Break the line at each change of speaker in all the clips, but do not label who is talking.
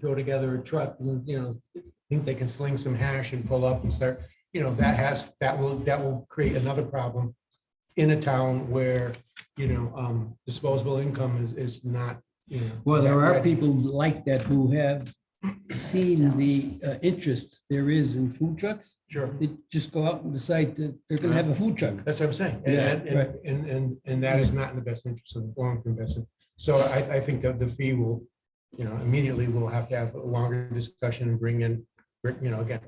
throw together a truck, you know, think they can sling some hash and pull up and start, you know, that has, that will, that will create another problem in a town where, you know, um, disposable income is, is not, you know.
Well, there are
ready.
people like that who have seen the uh, interest there is in food trucks.
Sure.
They just go out and decide that they're gonna have a food truck.
That's what I'm saying. And-
Yeah,
And, and,
right.
and, and, and that is not in the best interest of the long-term investment. So I, I think that the fee will, you know, immediately we'll have to have a longer discussion and bring in, you know, again,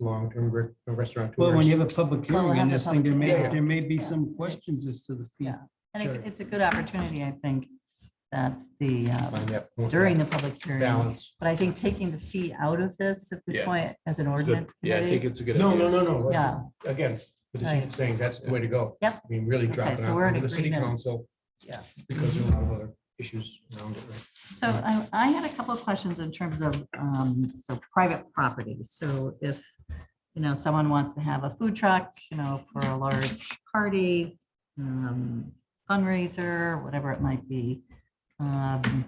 long-term re- restaurant.
Well, when you have a public
Well, we'll
hearing on
have a
this thing, there may,
public hearing.
there may be some questions as to the fee.
Yeah. I think
Sure.
it's a good opportunity, I think, that the, uh, during
During
the public hearing.
Balance.
But I think taking the fee out of this at this
Yeah.
point as an
It's good.
ordinance
Yeah, I think
committee.
it's a good.
No, no,
idea.
no, no.
Yeah.
Again, but the
Right.
chief saying that's the way to go.
Yep.
I mean, really drop
Okay,
it
so
out
we're in
to the city
agreement.
council.
Yeah.
Because there are a lot of other issues around it. right?
So I, I had a couple of questions in terms of, um, so private property. So if, you know, someone wants to have a food truck, you know, for a large party, um, fundraiser, whatever it might be, um,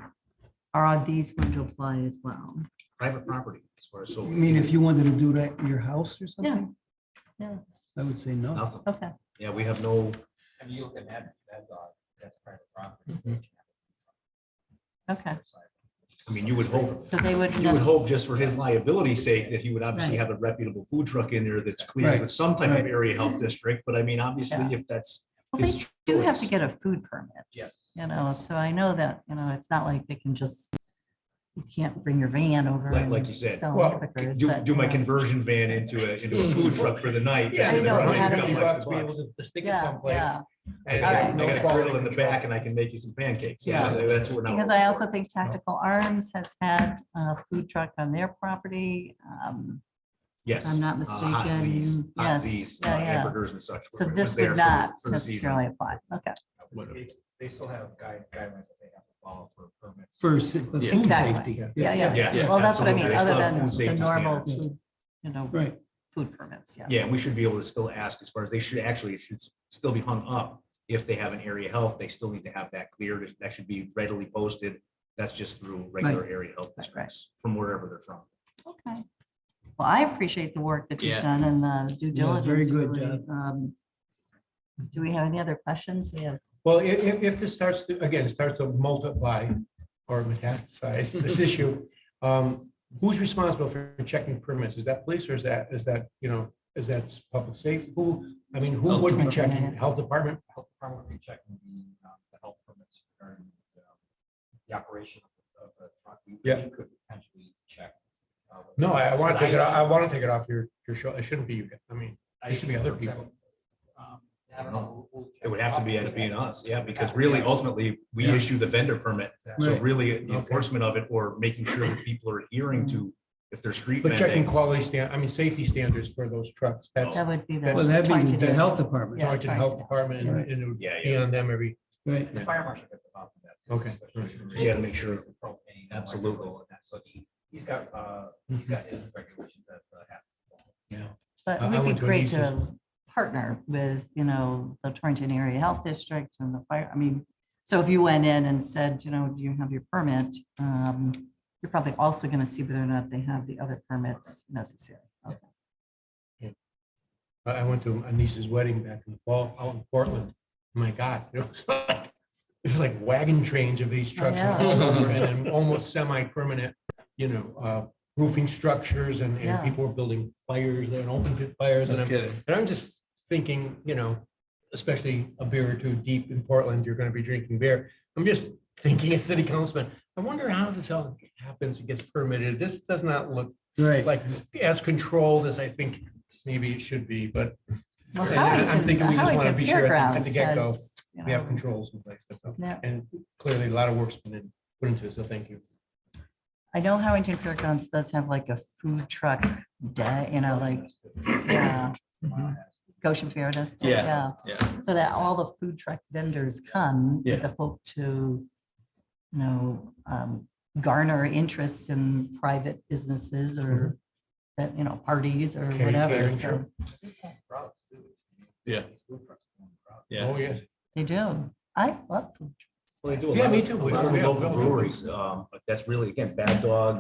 are these going to apply as well?
private property as far as
I
so
mean, if you wanted to do that in your house or
Yeah.
something?
Yeah.
I would say no.
nothing.
Okay.
Yeah, we have no.
I mean, you look at that, that dog, that's private property.
Okay,
I mean, you would hope.
so they would.
You would hope just for his liability sake that he would obviously have a reputable food truck in there that's
Right,
cleared with some type of
right.
area health district. But I mean, obviously,
Yeah.
if that's
Well,
his
they
choice.
do have to get a food permit,
Yes.
you know, so I know that, you know, it's not like they can just, you can't bring your van over.
Like- like
and
you said,
sell
well,
hamburgers,
Do,
but, uh,
do my
you know,
conversion van into a, into a food truck for the night.
Yeah,
just
I
to
know,
run it
how to
a
do
couple
that.
bucks bucks.
Just stick it
Yeah,
someplace.
yeah.
And
All
I
right.
got a
No
grill in the
quality
back and I can make you some pancakes. You know, That's what. I'm-
Because I also think Tactical Arms has had a food truck on their property. um,
Yes.
I'm not
uh, hot Z's,
mistaken.
hot
Yes,
Z's, uh,
yeah, yeah.
Hamburgers and such.
So
were- was
this
there
would
for-
not
for the season.
necessarily apply. Okay,
They, they still have guide, guidelines that they have to follow for permits.
For sa- for
Yeah.
food
Exactly.
safety.
yeah, yeah.
Yes,
Well, that's what I mean, other
absolutely. It's
than
about food
the
safety
normal,
standards.
food, you know,
Right.
food permits, yeah.
Yeah, and we should be able to still ask as far as they should actually, it should s- still be hung up. If they have an area health, they still need to have that cleared. That should be readily posted. That's just through regular area health
right.
districts from wherever they're from.
Okay. Well, I appreciate the work that
Yeah.
you've done and the due
Yeah,
diligence.
very good
really.
job.
Um, Do we have any other questions? We have,
Well, i- if, if this starts to, again, starts to multiply or metastasize this issue, um, who's responsible for checking permits? Is that police or is that, is that, you know, is that public safety? Who, I mean, who
Health
would be
department.
checking? Health department?
Health department would be checking the, um, the health permits regarding the, um, the operation of- of the truck. We-
Yeah.
We could potentially check. uh, whether-
No, I, I want to take it,
Because
I want to take it off your, your show. It shouldn't be you. I mean,
I-
it should be other people.
Um, I don't know. We'll- we'll check
It would have to be
out.
at being us, yeah, because really ultimately, we
Yeah.
issue the vendor permit. So
Right.
really the
Okay.
enforcement of it or making sure that people are adhering to, if they're street
But checking
vending.
quality stand, I mean, safety standards for those trucks, that's
that would be the.
Well, that'd
part
be
to
the
do.
health department,
Yeah,
talking to the
trying
health
to-
department and- and it would
Yeah, yeah.
be on them every,
right?
The fire marshal gets involved in that. too,
Okay.
especially
You gotta make sure.
with propane and
Absolutely.
electrical and that. So he, he's got, uh, he's got his regulations that uh, have. to follow.
you know.
But
I-
it
I
would be
went to an
great
ESOS.
to partner with, you know, the Torrington Area Health District and the fire, I mean, so if you went in and said, you know, do you have your permit? Um, You're probably also going to see whether or not they have the other permits necessary. Okay.
I I went to my niece's wedding back in the fall out in Portland. My God, it was like, it was like wagon trains of these trucks and all over and then almost semi-permanent, you know, uh, roofing structures and, and
Yeah.
people were building fires there and open pit fires. And
No
I'm,
kidding.
and I'm just thinking, you know, especially a beer or two deep in Portland, you're going to be drinking beer. I'm just thinking as city councilman, I wonder how this all happens, it gets permitted. This does not look
Right.
like as controlled as I think maybe it should be, but
Well,
Yeah, I'm
Howington,
thinking we just wanna
Howington
be sure at the- at
Fairgrounds
the get-go,
has, you
we have
know,
controls in place. that's all.
yeah.
And clearly a lot of work's been in- put into it, so thank you.
I know Howington Fairgrounds does have like a food truck day, you know, like, yeah,
Mm-hmm.
Goshen Fair does. too,
Yeah.
Yeah.
Yeah.
so that all the food truck vendors come with the hope to, you know, um, garner interest in private businesses
Mm-hmm.
or that, you know, parties or
Catering,
whatever.
catering,
So
sure.
Routes, too.
Yeah.
These food trucks going routes.
Yeah.
Oh, yes.
they do. I love food trucks.
Well, they do a
Yeah,
lot
me
of-
too.
A lot of
We- we-
local breweries, um, but that's really, again, Bad Dog,